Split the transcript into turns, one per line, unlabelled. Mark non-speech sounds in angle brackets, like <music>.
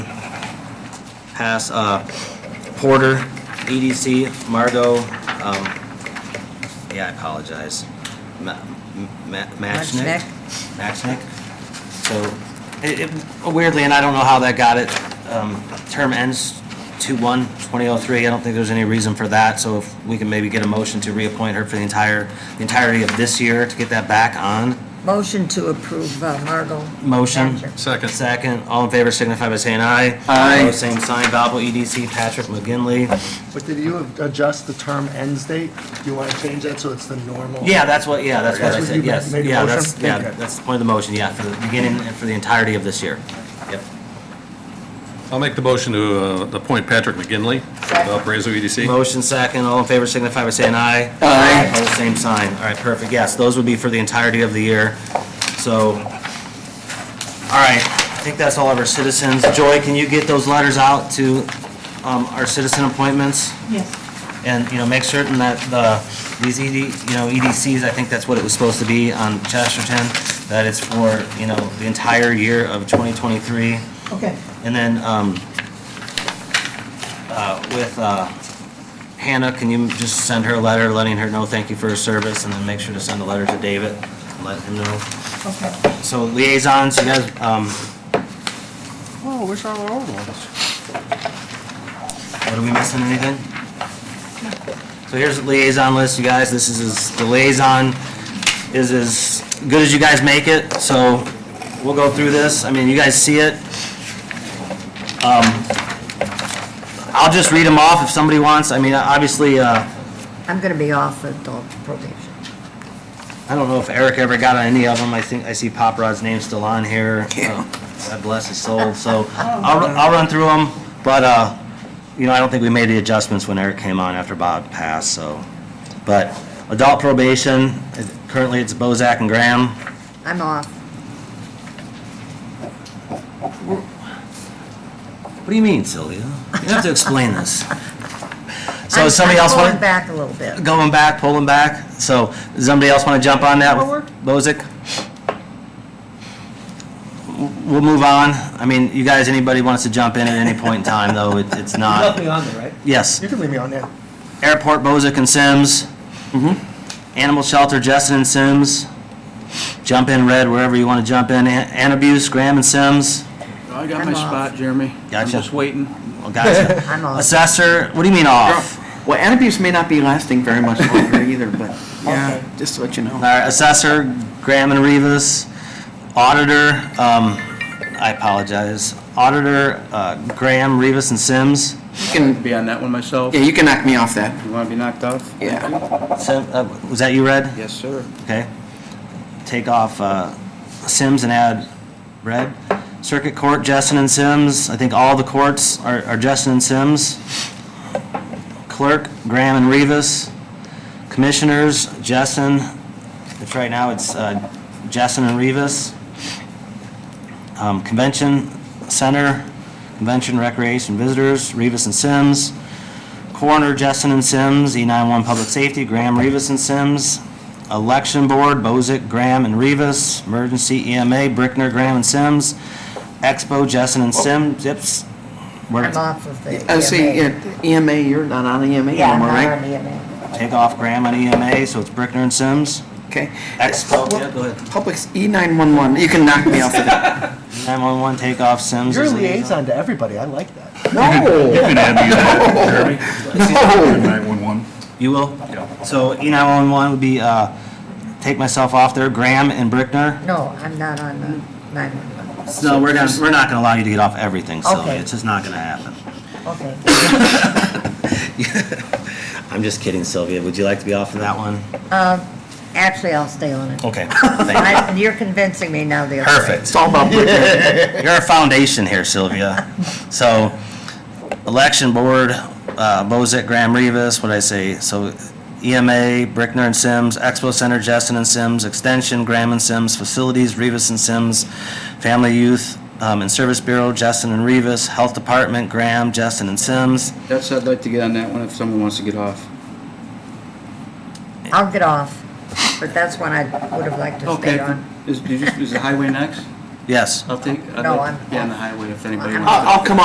pass uh, Porter, EDC, Margot, um, yeah, I apologize, Ma- Ma- Matchnick.
Matchnick.
Matchnick. So it- it- weirdly, and I don't know how that got it, um, term ends 2/1/2003. I don't think there's any reason for that, so if we can maybe get a motion to reappoint her for the entire, the entirety of this year to get that back on.
Motion to approve uh, Margot.
Motion.
Thatcher.
Second.
Second, all in favor signify by saying aye.
Aye.
Opposed, Same sign, Valpo EDC, Patrick McGinley.
But did you adjust the term ends date? Do you want to change that so it's the normal?
Yeah, that's what, yeah, that's what
That's
I
what you
said,
made-
yes.
made a
Yeah,
motion?
that's, yeah,
Okay.
that's the point of the motion, yeah, for the beginning and for the entirety of this year. Yep.
I'll make the motion to uh, appoint Patrick McGinley, Valparaiso EDC.
Motion second, all in favor signify by saying aye.
Aye.
Opposed, same sign. All right, perfect, yes, those would be for the entirety of the year, so. All right, I think that's all of our citizens. Joy, can you get those letters out to um, our citizen appointments?
Yes,
And, you know, make certain that the, these ED, you know, EDCs, I think that's what it was supposed to be on Chesterton, that it's for, you know, the entire year of 2023.
okay.
And then, um, uh, with, uh, Hannah, can you just send her a letter letting her know thank you for her service? And then make sure to send a letter to David, and let him know.
Okay.
So liaisons, you guys, um,
Oh, where's all our old ones?
What, are we missing anything? So here's the liaison list, you guys, this is, as- the liaison is as good as you guys make it, so we'll go through this, I mean, you guys see it. Um, I'll just read them off if somebody wants, I mean, obviously, uh,
I'm going to be off adult probation.
I don't know if Eric ever got on any of them, I think, I see Pop Rod's name still on here. Uh, God bless his soul, so I'll, I'll run through them, but, uh, you know, I don't think we made the adjustments when Eric came on after Bob passed, so. But adult probation, currently it's Bozak and Graham.
I'm off.
What do you mean, Sylvia? You have to explain this. So
I'm-
does somebody
I'm
else
pulling
want,
back a little bit.
going back, pulling back, so does somebody else want to jump on that with Bozak? We'll move on. I mean, you guys, anybody wants to jump in at any point in time, though, it- it's not.
Nothing on there, right?
Yes.
You can leave me on there.
Airport, Bozick and Sims.
Mm-hmm.
Animal Shelter, Justin and Sims. Jump in red wherever you want to jump in. An an abuse, Graham and Sims.
I got
I'm
my
off.
spot, Jeremy. I'm
Gotcha.
just waiting.
Well,
<laughs>
gotcha. <laughs>
I'm off.
Assessor, what do you mean off?
Well, antabuse may not be lasting very much
<laughs>
longer either, but yeah, just to let you
All
know.
right, Assessor, Graham and Rivas. Auditor, um, I apologize. Auditor, uh, Graham, Rivas and Sims.
You can,
be on that one myself.
yeah, you can knock me off that.
You want to be knocked off?
Yeah.
Sim, uh, was that you, Red?
Yes, sir.
Okay. Take off uh, Sims and add red. Circuit Court, Justin and Sims. I think all the courts are are Justin and Sims. Clerk, Graham and Rivas. Commissioners, Justin, which right now it's uh, Justin and Rivas. Um, Convention Center, Convention Recreation Visitors, Rivas and Sims. Coroner, Justin and Sims. E91 Public Safety, Graham, Rivas and Sims. Election Board, Bozick, Graham, and Rivas. Emergency EMA, Brickner, Graham, and Sims. Expo, Justin and Sims. Zips. We're-
I'm off of the
Oh,
I see,
E
EMA.
yeah, EMA, Oh, you're not on EMA
Yeah, I'm not
anymore,
on E
right?
the EMA.
Take off Graham on EMA, so it's Brickner and Sims.
Okay. E
Expo, yeah, go ahead.
Publix E911, you can knock me off
<laughs>
of that.
911, take off Sims.
You're a
as
liaison to everybody, I like that.
No.
You can add me on, Jeremy.
No.
911.
You will?
Yeah.
So E E911 would be, uh, take myself off there, Graham and Brickner.
No, I'm not on the 911.
No, we're gonna, we're not gonna allow you to get off everything, Sylvia.
Okay.
It's just not gonna happen.
Okay.
I'm just kidding, Sylvia. Would you like to be off of that one?
Actually, I'll stay on it.
<laughs> Okay, thank you.
I- You're convincing me now the other way.
Perfect.
It's
<laughs>
all about
You're a foundation here, Sylvia. So, election board, uh, Bozak, Graham Rivas, what'd I say? So EMA, Brickner and Sims, Expo Center, Justin and Sims, Extension, Graham and Sims, Facilities, Rivas and Sims, Family Youth um, and Service Bureau, Justin and Rivas, Health Department, Graham, Justin and Sims.
That's, I'd like to get on that one if someone wants to get off.
I'll get off, but that's one I would have liked to stay
Okay.
on.
Is, did you- is the highway next?
Yes.
I'll take, I'd
No,
like
I'm
to be on the
off.
highway if anybody
I'm
wants.
I'll, I'll come